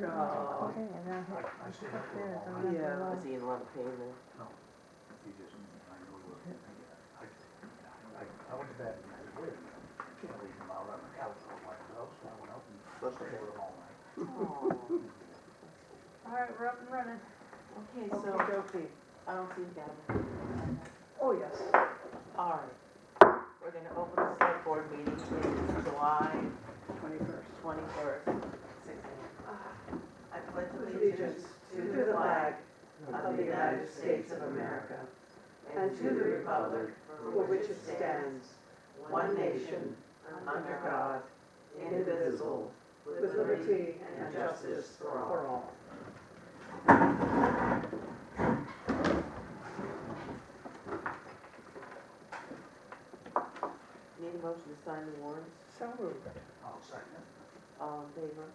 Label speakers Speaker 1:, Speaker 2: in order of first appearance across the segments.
Speaker 1: No.
Speaker 2: Okay, and then hit, I should up there, it's on
Speaker 1: Yeah.
Speaker 2: that
Speaker 3: Is he in love with Haman?
Speaker 4: You just, I know you were, I, I, I went to bed and I was waiting. Can't leave them out on the couch or my house, I went out and stayed with them all night.
Speaker 3: Oh.
Speaker 5: All right, we're up and running.
Speaker 3: Okay,
Speaker 1: Okey
Speaker 3: so
Speaker 1: dokey.
Speaker 3: I don't see you guys.
Speaker 1: Oh, yes.
Speaker 3: All right. We're gonna open the select board meeting in July
Speaker 1: Twenty-first.
Speaker 3: twenty-first, six AM. I pledge
Speaker 1: Allegiance to the flag
Speaker 3: of the United States of America
Speaker 1: and to the republic for which it stands, one nation, under God, indivisible, with liberty and justice for all.
Speaker 3: Need a motion to sign the warrants,
Speaker 1: So moved.
Speaker 4: I'll second it.
Speaker 3: all in favor?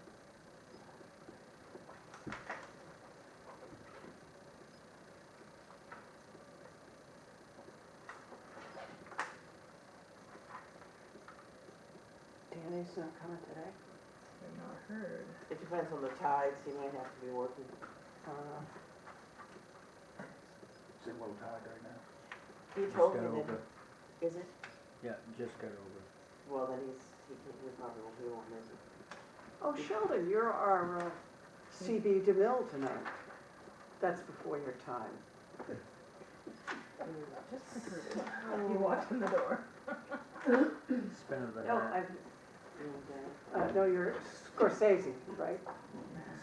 Speaker 1: Danny's not coming today?
Speaker 2: I've not heard.
Speaker 3: It depends on the tides, he might have to be working.
Speaker 1: Uh,
Speaker 4: Is it low tide right now?
Speaker 3: He
Speaker 6: Just
Speaker 3: told
Speaker 6: got
Speaker 3: me
Speaker 6: over.
Speaker 3: that, is it?
Speaker 6: Yeah, just got over.
Speaker 3: Well, then he's, he can, he probably won't be on it.
Speaker 1: oh, Sheldon, you're our uh, CB DeMille tonight. That's before your time.
Speaker 2: Just heard
Speaker 1: Oh.
Speaker 2: it. He walked in the door.
Speaker 6: Spin of the
Speaker 1: No,
Speaker 6: hat.
Speaker 1: I,
Speaker 3: Okay.
Speaker 1: uh, no, you're Scorsese, right?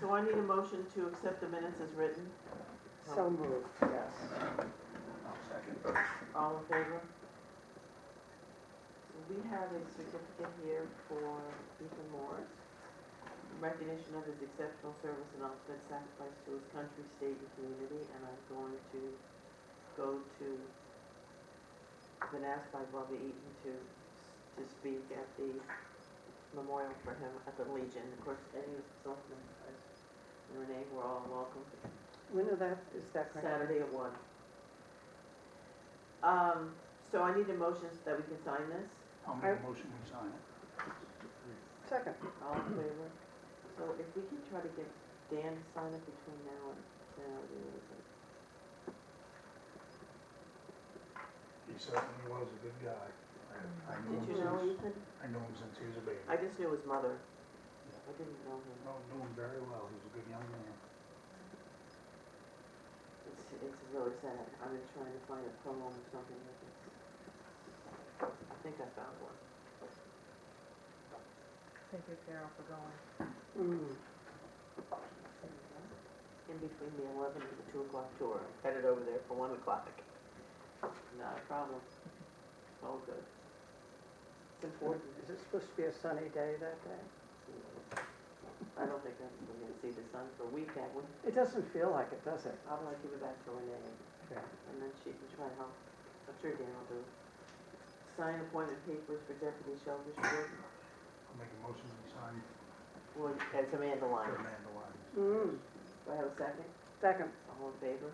Speaker 3: So I need a motion to accept the minutes as written,
Speaker 1: So moved, yes.
Speaker 4: I'll second.
Speaker 3: all in favor? So we have a certificate here for Ethan Morris, in recognition of his exceptional service and ultimate sacrifice to his country, state, and community, and I'm going to go to, I've been asked by Bobby Eaton to, to speak at the memorial for him at the Legion, of course, Eddie was selectman, and Renee were all welcome to
Speaker 1: When is that, is that correct?
Speaker 3: Saturday at one. Um, so I need a motion that we can sign this,
Speaker 4: I'll make a motion to sign it.
Speaker 1: Second.
Speaker 3: all in favor? So if we can try to get Dan to sign it between now and, now, it is.
Speaker 4: He certainly was a good guy. I I knew him
Speaker 3: did you know
Speaker 4: since,
Speaker 3: Ethan?
Speaker 4: I knew him since he was a baby.
Speaker 3: I just knew his mother, I didn't know him.
Speaker 4: No, knew him very well, he was a good young man.
Speaker 3: It's, it's really sad. I've been trying to find a poem or something like this. I think I found one.
Speaker 2: Thank you, Carol, for going.
Speaker 1: Mm.
Speaker 3: In between the eleven and the two o'clock tour, I headed over there for one o'clock. Not a problem. All good. It's important.
Speaker 1: Is it supposed to be a sunny day that day?
Speaker 3: I don't think I'm we're gonna see the sun for a week, that one.
Speaker 1: It doesn't feel like it, does it?
Speaker 3: I'd like to give it back to Renee,
Speaker 1: Yeah.
Speaker 3: and then she can try to help. I'm sure Dan will do it. Sign appointment papers for Deputy Shellfish Board,
Speaker 4: I'll make a motion to sign
Speaker 3: well, as Amanda
Speaker 4: for
Speaker 3: Lyons.
Speaker 4: Amanda Lyons.
Speaker 1: Mm.
Speaker 3: Do I have a second?
Speaker 1: Second.
Speaker 3: All in favor?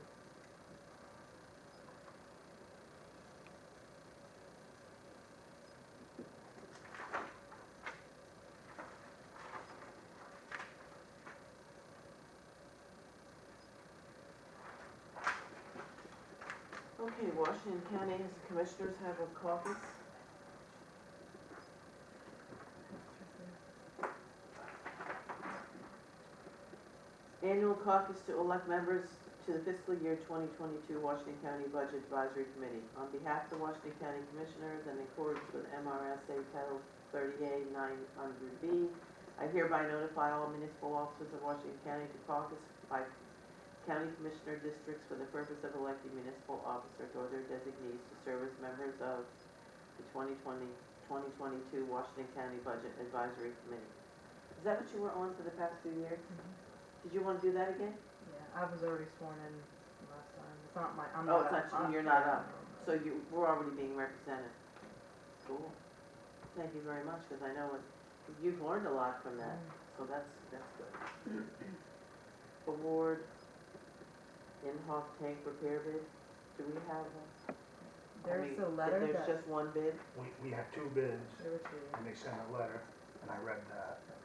Speaker 3: Okay, Washington County Commissioners have a caucus. Annual caucus to elect members to the fiscal year 2022 Washington County Budget Advisory Committee. On behalf of the Washington County Commissioners and in accordance with MRSA Title 30A 900B, I hereby notify all municipal officers of Washington County to caucus by county commissioner districts for the purpose of electing municipal officers or their designees to serve as members of the 2020, 2022 Washington County Budget Advisory Committee. Is that what you were on for the past few years? Did you want to do that again?
Speaker 2: Yeah, I was already sworn in last time. It's not my, I'm
Speaker 3: Oh,
Speaker 2: not.
Speaker 3: it's not you,
Speaker 2: I'm-
Speaker 3: you're not up. So
Speaker 2: Mm.
Speaker 3: you, we're already being represented. Cool. Thank you very much, because I know it, you've learned a lot from that, so that's, that's good. Award in-house tank repair bid, do we have, a- I mean,
Speaker 2: There's a
Speaker 3: if
Speaker 2: letter that,
Speaker 3: there's just one bid?
Speaker 4: We, we have two bids,
Speaker 2: there were two.
Speaker 4: and they sent a letter, and I read that, and